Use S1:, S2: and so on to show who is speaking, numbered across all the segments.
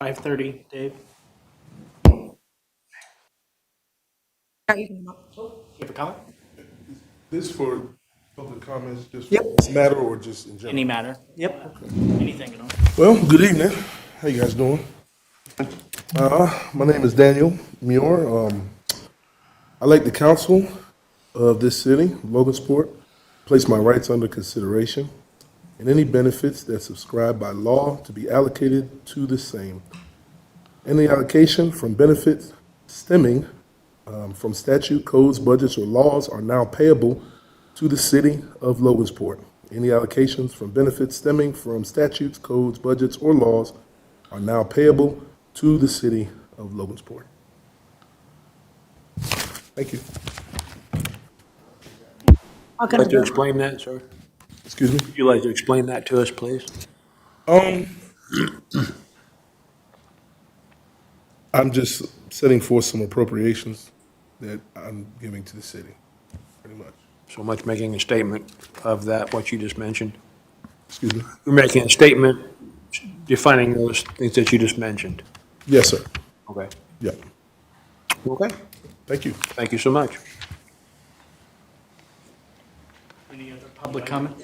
S1: Five thirty, Dave. You have a comment?
S2: This for public comments, just
S1: Yep.
S2: matter or just in general?
S1: Any matter? Yep. Anything at all.
S2: Well, good evening. How you guys doing? Uh, my name is Daniel Muir. Um, I like the council of this city, Logansport, place my rights under consideration and any benefits that subscribed by law to be allocated to the same. Any allocation from benefits stemming um, from statute, codes, budgets, or laws are now payable to the city of Logansport. Any allocations from benefits stemming from statutes, codes, budgets, or laws are now payable to the city of Logansport. Thank you.
S3: I'll
S4: Like to
S3: go.
S4: explain that, sir?
S2: Excuse me?
S4: Would you like to explain that to us, please?
S2: Um, I'm just setting forth some appropriations that I'm giving to the city, pretty much.
S4: So much making a statement of that, what you just mentioned.
S2: Excuse me?
S4: You're making a statement defining those things that you just mentioned.
S2: Yes, sir.
S4: Okay.
S2: Yeah.
S4: Okay.
S2: Thank you.
S4: Thank you so much.
S1: Any other public comment?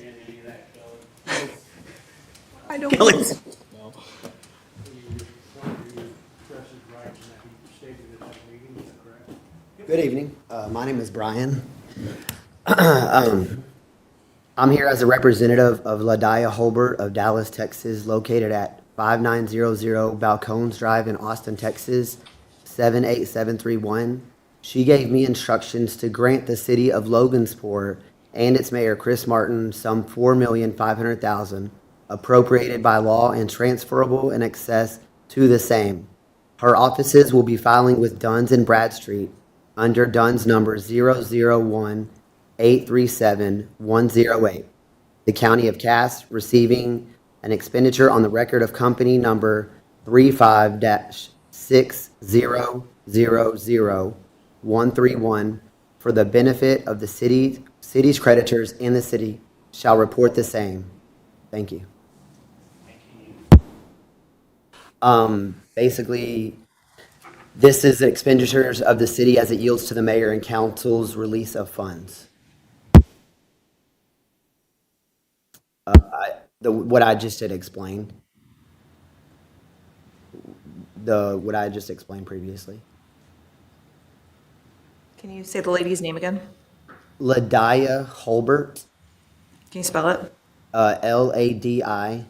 S3: I don't want to-
S5: Good evening. Uh, My name is Brian. Um, I'm here as a representative of Ladaya Holbert of Dallas, Texas, located at 5900 Balcones Drive in Austin, Texas, 78731. She gave me instructions to grant the city of Logansport and its mayor, Chris Martin, some $4,500,000 appropriated by law and transferable in excess to the same. Her offices will be filing with Duns and Bradstreet under Duns number 001 837 108. The County of Cass receiving an expenditure on the record of company number 35 6000131 for the benefit of the city, city's creditors in the city shall report the same. Thank you. Um, basically, this is expenditures of the city as it yields to the mayor and council's release of funds. Uh, I- The, what I just had explained. The, what I just explained previously.
S3: Can you say the lady's name again?
S5: Ladaya Holbert,
S3: Can you spell it?
S5: uh, L-A-D-I-Y-A-H,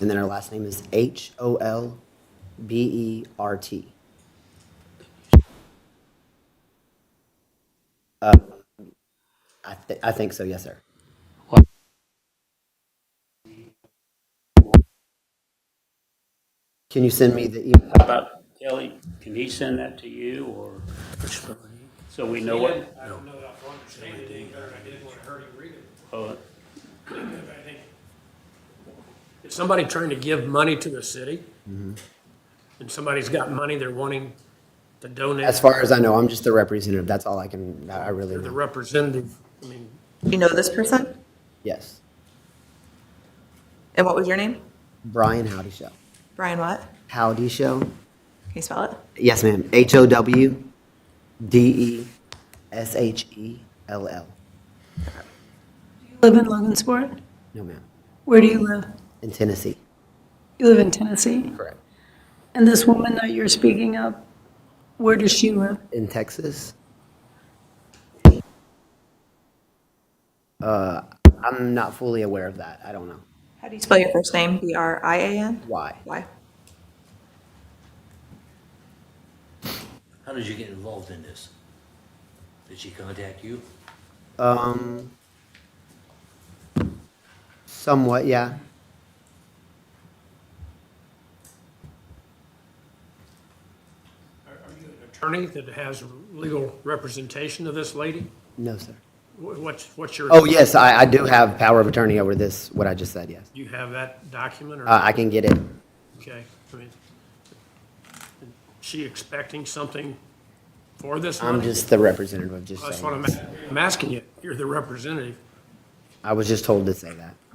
S5: and then her last name is E H-O-L-B-E-R-T. Uh, I, thi- I think so, yes, sir. Can you send me the email?
S6: About Kelly, can he send that to you or, so we know what? I don't know if I understand it any better I did when I heard him read it.
S7: If somebody trying to give money to the city,
S5: Mm-hmm.
S7: and somebody's got money they're wanting to
S5: As
S7: donate,
S5: far as I know, I'm just the representative. That's all I can, I I really
S7: the
S5: know.
S7: representative, I mean,
S3: You know this person?
S5: Yes.
S3: And what was your name?
S5: Brian Howdy Show.
S3: Brian what?
S5: Howdy Show.
S3: Can you spell it?
S5: Yes, ma'am. H O W D E S H E L L.
S8: Live in Logansport?
S5: No, ma'am.
S8: Where do you live?
S5: In Tennessee.
S8: You live in Tennessee?
S5: Correct.
S8: And this woman that you're speaking of, where does she live?
S5: In Texas. Uh, I'm not fully aware of that. I don't know.
S3: How do you spell your first name? B R I A N?
S5: Why?
S3: Why?
S9: How did you get involved in this? Did she contact you?
S5: Um, somewhat, yeah.
S7: are you an attorney that has legal representation of this lady?
S5: No, sir.
S7: Wh- What's, what's your?
S5: Oh, yes, I, I do have power of attorney over this, what I just said, yes.
S7: You have that document,
S5: Uh,
S7: or,
S5: I can get it.
S7: okay, I mean, she expecting something for this money?
S5: I'm just the representative of just
S7: That's what
S5: saying.
S7: I'm, I'm asking you, you're the representative,
S5: I was just told to say that.